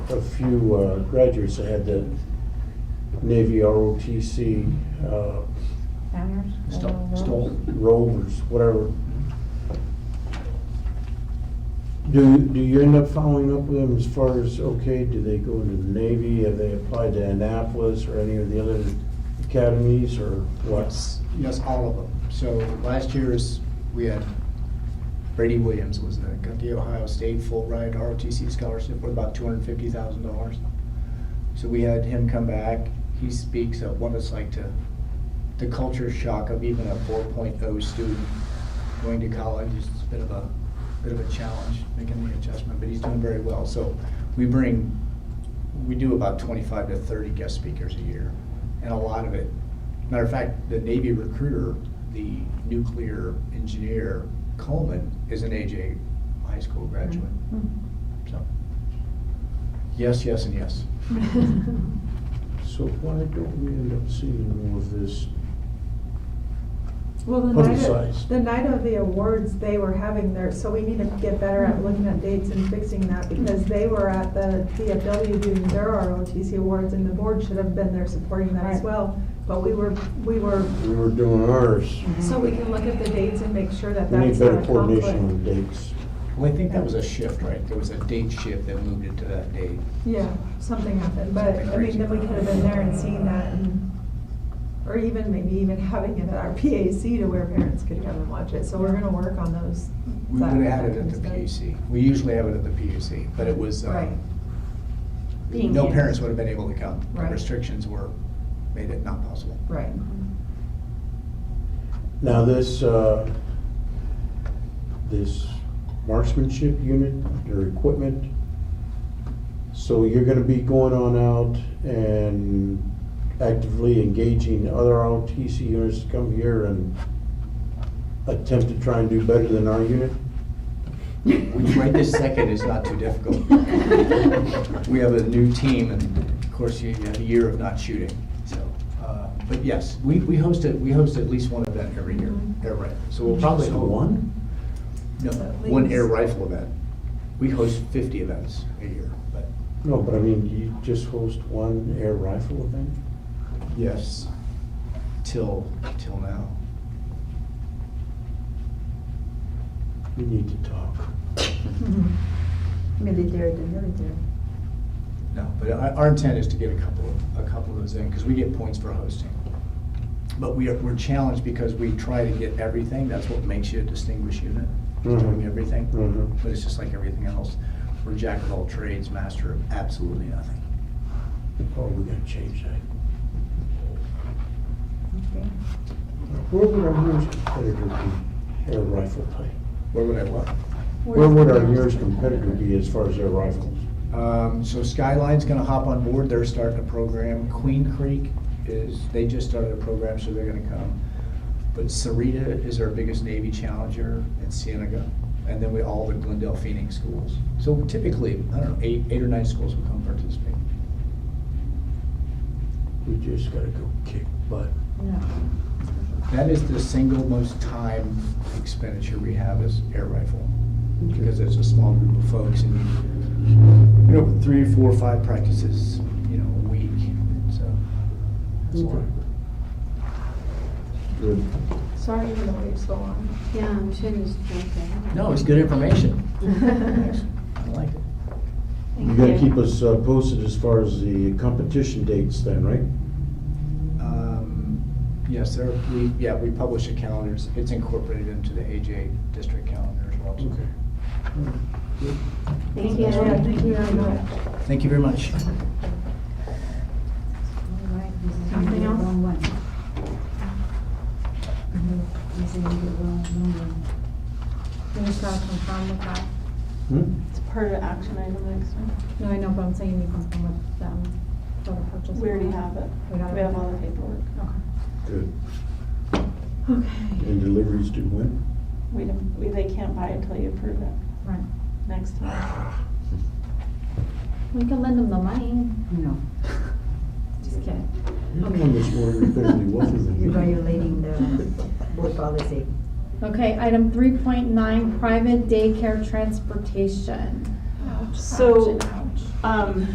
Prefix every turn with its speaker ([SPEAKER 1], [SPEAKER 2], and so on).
[SPEAKER 1] a few uh, graduates that had the Navy ROTC, uh,
[SPEAKER 2] Founders?
[SPEAKER 3] Stole,
[SPEAKER 2] uh,
[SPEAKER 3] stole.
[SPEAKER 1] rovers, whatever. Do, do you end up following up with them as far as, okay, do they go into the Navy? Have they applied to Annapolis or any of the other academies or what?
[SPEAKER 3] Yes, yes, all of them. So last year's, we had Brady Williams was the, got the Ohio State full ride ROTC scholarship worth about two hundred and fifty thousand dollars. So we had him come back. He speaks of what it's like to, the culture shock of even a four oh student going to college. It's a bit of a, bit of a challenge making the adjustment, but he's doing very well. So we bring, we do about twenty-five to thirty guest speakers a year. And a lot of it Matter of fact, the Navy recruiter, the nuclear engineer Coleman, is an AJ high school graduate.
[SPEAKER 2] Mm-hmm.
[SPEAKER 3] So, yes, yes, and yes.
[SPEAKER 1] So why don't we end up seeing more of this?
[SPEAKER 4] Well, the night
[SPEAKER 1] Publicized.
[SPEAKER 4] of, the night of the awards, they were having their, so we need to get better at looking at dates and fixing that because they were at the DFW doing their ROTC awards and the board should have been there supporting that as
[SPEAKER 2] Right.
[SPEAKER 4] well. But we were, we were,
[SPEAKER 1] We were doing ours.
[SPEAKER 4] so we can look at the dates and make sure that
[SPEAKER 1] We need
[SPEAKER 4] that's not
[SPEAKER 1] better
[SPEAKER 4] a
[SPEAKER 1] coordination
[SPEAKER 4] conflict.
[SPEAKER 1] on dates.
[SPEAKER 3] Well, I think that was a shift, right? There was a date shift that moved it to that date.
[SPEAKER 4] Yeah, something happened, but
[SPEAKER 3] Something
[SPEAKER 4] I mean, then we
[SPEAKER 3] crazy.
[SPEAKER 4] could have been there and seen that and, or even maybe even having it at our PAC to where parents could come and watch it. So we're gonna work on those.
[SPEAKER 3] We
[SPEAKER 4] that-
[SPEAKER 3] would have had it
[SPEAKER 4] that
[SPEAKER 3] at the
[SPEAKER 4] kind of stuff.
[SPEAKER 3] PUC. We usually have it at the PUC, but it was, um,
[SPEAKER 4] Right.
[SPEAKER 2] Being
[SPEAKER 3] no
[SPEAKER 2] here.
[SPEAKER 3] parents would have been able to come. The
[SPEAKER 4] Right.
[SPEAKER 3] Restrictions were, made it not possible.
[SPEAKER 4] Right.
[SPEAKER 1] Now, this, uh, this marksmanship unit, their equipment, so you're gonna be going on out and actively engaging other ROTC units to come here and attempt to try and do better than our unit?
[SPEAKER 3] Which right this second is not too difficult. We have a new team, and of course, you have a year of not shooting, so. uh, But yes, we, we host it, we host at least one event every year, air rifle. So we'll probably.
[SPEAKER 1] So
[SPEAKER 3] hold-
[SPEAKER 1] one?
[SPEAKER 3] No,
[SPEAKER 4] Mm-hmm. At
[SPEAKER 3] one air
[SPEAKER 4] least.
[SPEAKER 3] rifle event. We host fifty events a year, but.
[SPEAKER 1] No, but I mean, you just host one air rifle event?
[SPEAKER 3] Yes. Till, till now.
[SPEAKER 1] We need to talk.
[SPEAKER 2] Military to military.
[SPEAKER 3] No, but our, our intent is to get a couple, of- a couple of those in, because we get points for hosting. But we are, we're challenged because we try to get everything, that's what makes you a distinguished unit, is doing
[SPEAKER 1] Mhm.
[SPEAKER 3] everything.
[SPEAKER 1] Mhm.
[SPEAKER 3] But it's just like everything else, we're jack of all trades, master of absolutely nothing.
[SPEAKER 1] Oh, we gotta change that.
[SPEAKER 2] Okay.
[SPEAKER 1] Where would our nearest competitor be, air rifle type?
[SPEAKER 3] Where would I look?
[SPEAKER 1] Where would our nearest competitor be as far as their rifles?
[SPEAKER 3] Um, so Skyline's gonna hop on board, they're starting a program, Queen Creek is, they just started a program, so they're gonna come. But Sarita is our biggest Navy challenger in Cienega, and then we, all the Glendale Phoenix schools. So typically, I don't know, eight, eight or nine schools will come participate.
[SPEAKER 1] We just gotta go kick butt.
[SPEAKER 2] No.
[SPEAKER 3] That is the single most time expenditure we have is air rifle, because it's a small group of folks and, you know, three, four, five practices, you know, a week, so. that's a lot.
[SPEAKER 1] Okay. Good.
[SPEAKER 4] Sorry you to wait so long.
[SPEAKER 2] Yeah, I'm sure it's okay.
[SPEAKER 3] No, it's good information.
[SPEAKER 2] Thank
[SPEAKER 3] I like it.
[SPEAKER 1] You gotta keep us uh, posted as far as the competition dates then, right?
[SPEAKER 3] Um, Yes, there, we, yeah, we publish the calendars. It's incorporated into the AJ district calendar as well. so.
[SPEAKER 2] Thank you.
[SPEAKER 4] Yeah, thank you
[SPEAKER 2] All
[SPEAKER 4] very much.
[SPEAKER 3] Thank you very much.
[SPEAKER 2] right, this is
[SPEAKER 4] Something
[SPEAKER 2] the
[SPEAKER 4] else?
[SPEAKER 2] wrong one. This is the wrong one.
[SPEAKER 4] Can you stop from farm with that?
[SPEAKER 1] Hmm?
[SPEAKER 5] It's part of action item next time.
[SPEAKER 4] No, I know, but I'm saying you can come um, with them for the purchase.
[SPEAKER 5] We already have it.
[SPEAKER 4] We got it? Oh.
[SPEAKER 5] We have all the paperwork.
[SPEAKER 4] Okay.
[SPEAKER 1] Good.
[SPEAKER 4] Okay,
[SPEAKER 1] And deliveries do when?
[SPEAKER 5] We don't, we, they can't buy it till you approve it
[SPEAKER 4] right.
[SPEAKER 5] next time.
[SPEAKER 2] We can lend them the money. No. Just kidding.
[SPEAKER 1] You're the one that's more repetitive, wasn't it?
[SPEAKER 6] You're violating the board policy.
[SPEAKER 2] Okay, item three point nine, private daycare transportation.
[SPEAKER 5] So,
[SPEAKER 2] Ouch, ouch.
[SPEAKER 5] Um,